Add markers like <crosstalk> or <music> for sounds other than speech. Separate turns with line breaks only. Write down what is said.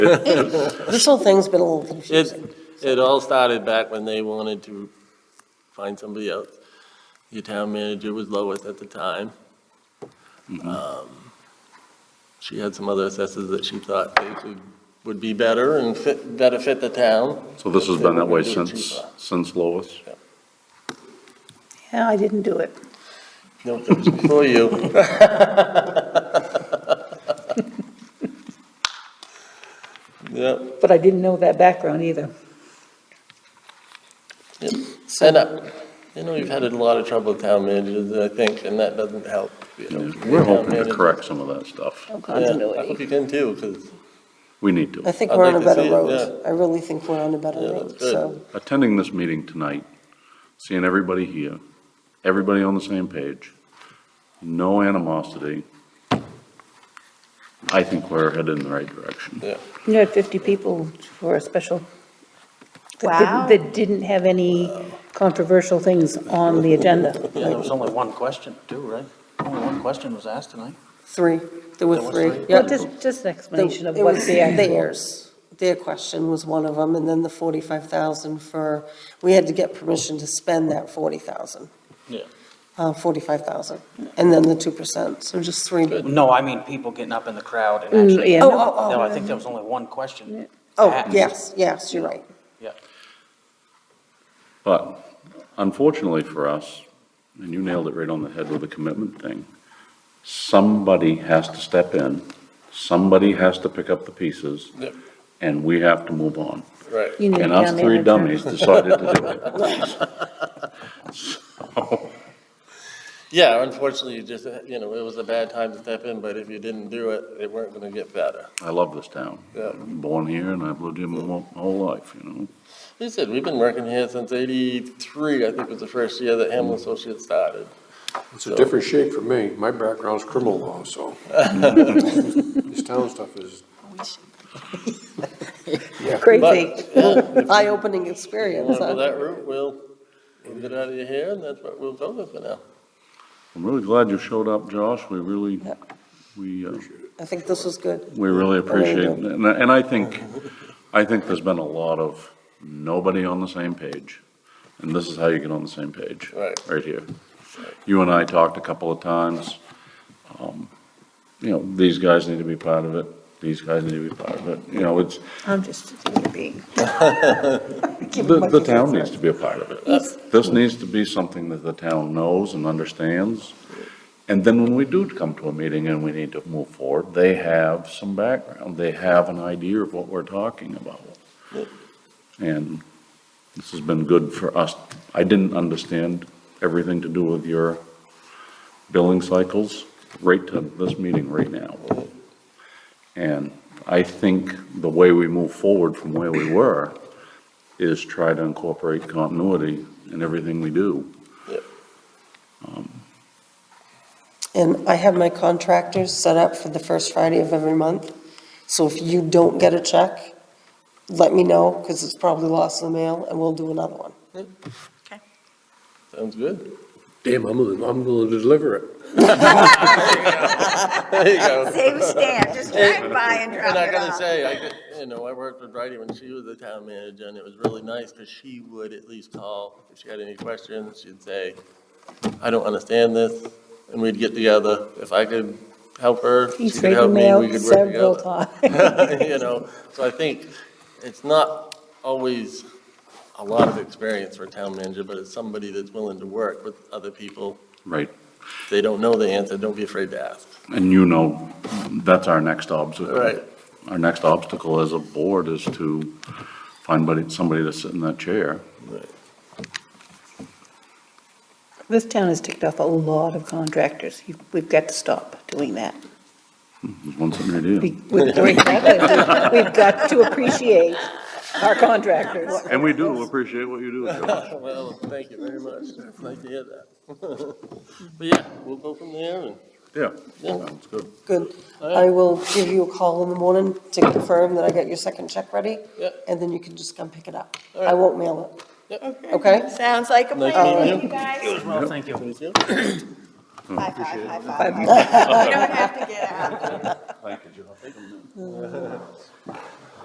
This whole thing's been a little confusing.
It, it all started back when they wanted to find somebody else. Your town manager was Lois at the time.
Mm-hmm.
Um, She had some other assessors that she thought they could, would be better and fit, better fit the town.
So this has been that way
It would be
since,
cheaper.
since Lois?
Yeah, I didn't do it.
No, it was before you. <laughs> Yep,
But I didn't know that background either.
yep. And I, you know, you've had a lot of trouble with town managers, I think, and that doesn't help. you know,
Yeah,
for
We're
town
hoping to
managers.
correct some of that stuff.
No
Yeah, I hope
continuity.
you can too, because
We need to.
I think
I'd
we're on a
like to
better
see it,
road. I really think we're on a better
Yeah,
road,
that's good.
so.
Attending this meeting tonight, seeing everybody here, everybody on the same page, no animosity. I think we're headed in the right direction.
You had 50 people for a special. that didn't-
Wow.
That didn't have any controversial things on
<laughs>
the agenda.
Yeah, there was only one question too, right? Only one question was asked tonight.
Three, there were
There was
three.
three?
Well,
Yep.
just, just an
The-
explanation of
it
what
was
the actual.
Theirs, their question was one of them, and then the forty-five thousand for, we had to get permission to spend that forty thousand.
Yeah.
Uh, forty-five thousand, and then the two percent, so just three.
Good.
No, I mean people getting up in the crowd and
Mm,
actually.
yeah,
Oh,
no.
oh, oh.
No, I think there was only one question.
Oh,
asked.
yes, yes, you're right.
Yeah.
But unfortunately for us, and you nailed it right on the head with the commitment thing, somebody has to step in, somebody has to pick up the pieces,
Yep.
and we have to move on.
Right.
You need
And
a
us
town
three
manager.
dummies
<laughs>
decided to do it. So,
Yeah, unfortunately, you just, you know, it was a bad time to step in, but if you didn't do it, they weren't gonna get better.
I love this town.
Yeah.
Born here and I've lived here my whole- whole life, you know?
They said, we've been working here since eighty-three, I think was the first year that Hamlin Associates started.
It's a different shape for me. My background's criminal law, so. This town stuff is,
Crazy.
<laughs> Eye-opening
You
experience,
wanna
huh?
go that route, we'll, we'll get out of your hair, and that's what we'll go with for now.
I'm really glad you showed up, Josh. We really,
Yeah.
we, uh,
I think this was good.
we really appreciate,
Very
and I- and I think, I think there's been a lot of nobody on the same page. And this is how you get on the same page.
Right.
Right here. You and I talked a couple of times. Um, You know, these guys need to be part of it, these guys need to be part of it. You know, it's,
I'm just a human being.
The, the town needs to be a part of it. Uh, This needs to be something that the town knows and understands. And then when we do come to a meeting and we need to move forward, they have some background, they have an idea of what we're talking about. And this has been good for us. I didn't understand everything to do with your billing cycles right to this meeting right now. And I think the way we move forward from where we were is try to incorporate continuity in everything we do.
And I have my contractors set up for the first Friday of every month. So if you don't get a check, let me know, because it's probably lost in the mail, and we'll do another one.
Sounds good? <laughs>
damn, I'm gonna, I'm gonna deliver it.
There you go.
Same stand, just drive by and drop
And I
it
gotta
off.
say, I, get- you know, I worked with Bridie when she was the town manager, and it was really nice, because she would at least call, if she had any questions, she'd say, I don't understand this, and we'd get together, if I could help her, she
He's
could help
taken me
me, we could work
out several
together.
times.
<laughs> You know, so I think it's not always a lot of experience for a town manager, but it's somebody that's willing to work with other people.
Right.
If they don't know the answer, don't be afraid to ask.
And you know, that's our next obstacle.
Right.
Our next obstacle as a board is to find buddy- somebody to sit in that chair.
<laughs> This town has ticked off a lot of contractors. You- We've got to stop doing that.
There's one sitting right here.
We-
<laughs>
We've we've got to- we've got to appreciate our contractors.
And we do appreciate what you do, Joe.
<laughs> Well, thank you very much. Nice to hear that. <laughs> But yeah, we'll go from there and,
Yeah,
yeah,
sounds good.
Good. I will give you a call in the morning to confirm that I got your second check ready.
Yep.
And then you can just come pick it up.
All right.
I won't mail
yeah.
it, okay?
Sounds like a
Nice
plan,
meeting Hmm.
you guys.
Well, thank you.
Thank you.
High five, high five. You don't have to get out.
Thank you, Joe.